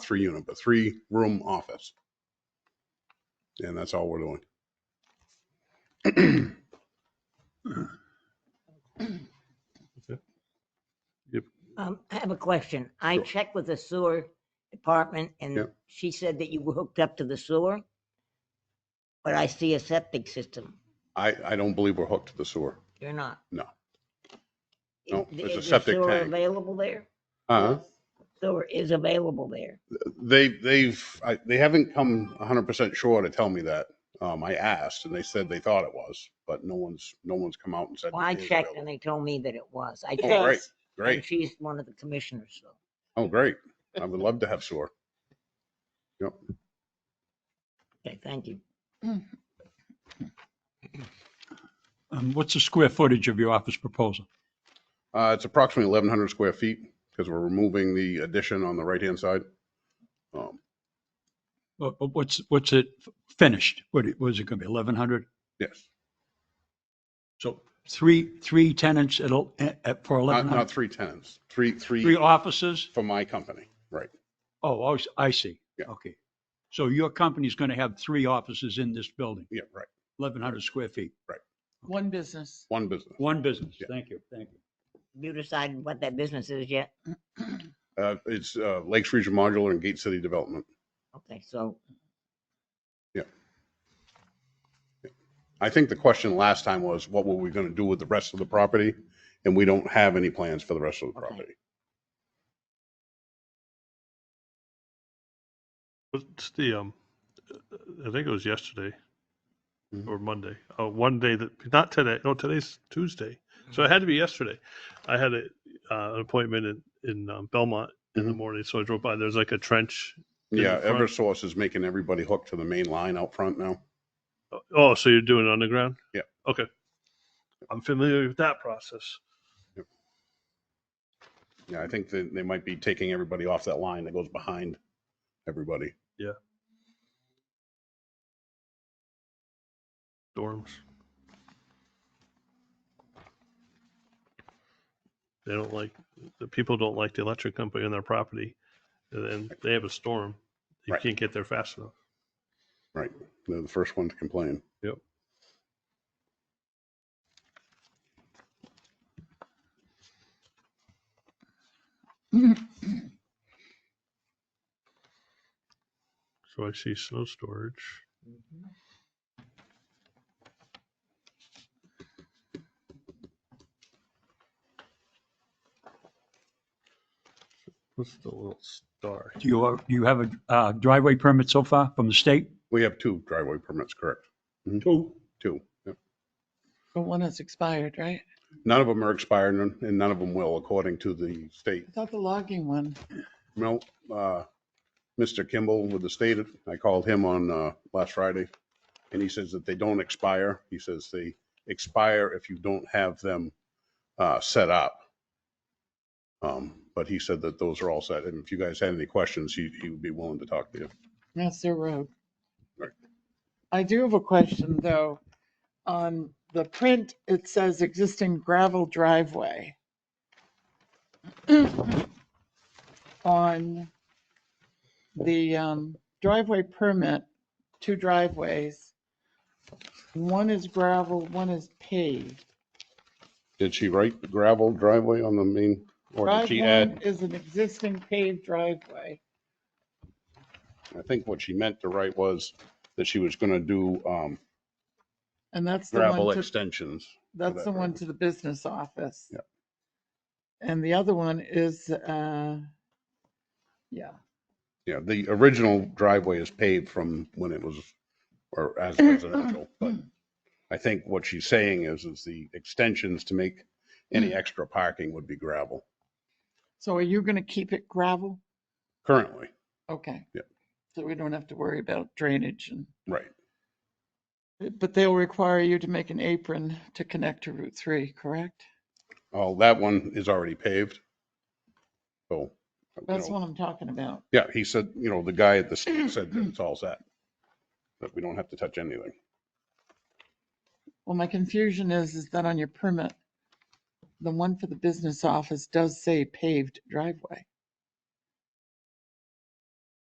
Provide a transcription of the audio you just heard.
per unit, but three room office. And that's all we're doing. Um, I have a question. I Sure. checked with the sewer department and Yep. she said that you were hooked up to the sewer. But I see a septic system. I, I don't believe we're hooked to the sewer. You're not. No. Is No, the- there's a is the septic sewer tank. Available there? Uh, Sewer is available there. they, they've, I, they haven't come hundred percent sure to tell me that. Um, I asked and they said they thought it was, but no one's, no one's come out and said. Well, I it is checked available. and they told me that it was. I It Oh, checked. great, does. And great. she's one of the commissioners, so. Oh, great. I would love to have sewer. Okay, thank you. Um, What's the square footage of your office proposal? Uh, it's approximately eleven hundred square feet because we're removing the addition on the right-hand side. Um, What- what- What's, what's it finished? What, it- was it going to be 1,100? yes, So three, three tenants at, a- at, for not, not 1,100? three tenants, three, Three three offices? for my company, right? Oh, I s- I see. Yeah. Okay. So your company's going to have three offices in this building, Yeah, right. 1,100 square feet. One business. One business. One business. Yeah. Thank you, thank you. You decided what that business is yet? Uh, it's, uh, Lakes Region Modular and Gate City Development. Okay, so I think the question last time was, what were we going to do with the rest of the property? And we don't have any plans for the rest of the Okay. property. What's the, um, I think it was yesterday Mhm. or Monday, uh, one day that, not today, no, today's Tuesday. So it had to be yesterday. I had a, uh, an appointment in, in um, Belmont in the Mhm. morning. So I drove by, there's like a trench. In the Yeah, front. Eversource is making everybody hook to the main line out front now. Oh, so you're doing it underground? Yeah. Okay. I'm familiar with that process. Yeah, I think that they might be taking everybody off that line that goes behind everybody. Dorms. They don't like, the people don't like the electric company on their property and then they have a storm. You Right. can't get there fast enough. They're the first one to complain. So I see snow storage. What's the little star? Do you, do you have a uh, driveway permit so far from the state? We have two driveway permits, correct? Two. Two. Yep. But one has expired, right? None of them are expired and and none of them will, according to the state. I thought the logging one. No, uh, Mr. Kimball with the state, I called him on, uh, last Friday. And he says that they don't expire. He says they expire if you don't have them, uh, set up. Um, but he said that those are all set. And if you guys had any questions, he, he would be willing to talk to you. That's their road. Right. I do have a question, though. On the print, it says existing gravel driveway. On the um, driveway permit, two driveways. One is gravel, one is paved. Did she write gravel driveway on the main? Or did Drive she add, one is an existing paved driveway. I think what she meant to write was that she was gonna do, um, And that's the gravel one, to- extensions. that's that the one purpose. to the business office. Yep. And the other one is, uh, yeah, Yeah, the original driveway is paved from when it was, or as residential, but I think what she's saying is, is the extensions to make any extra parking would be gravel so are you gonna keep it gravel? currently, Okay. Yep. So we don't have to worry about drainage and, right? but they'll require you to make an apron to connect to Route Three, correct? Oh, that one is already paved. So, you That's know, what I'm talking about. yeah, he said, you know, the guy at the state said that it's all set, that we don't have to touch anything. Well, my confusion is, is that on your permit, the one for the business office does say paved driveway.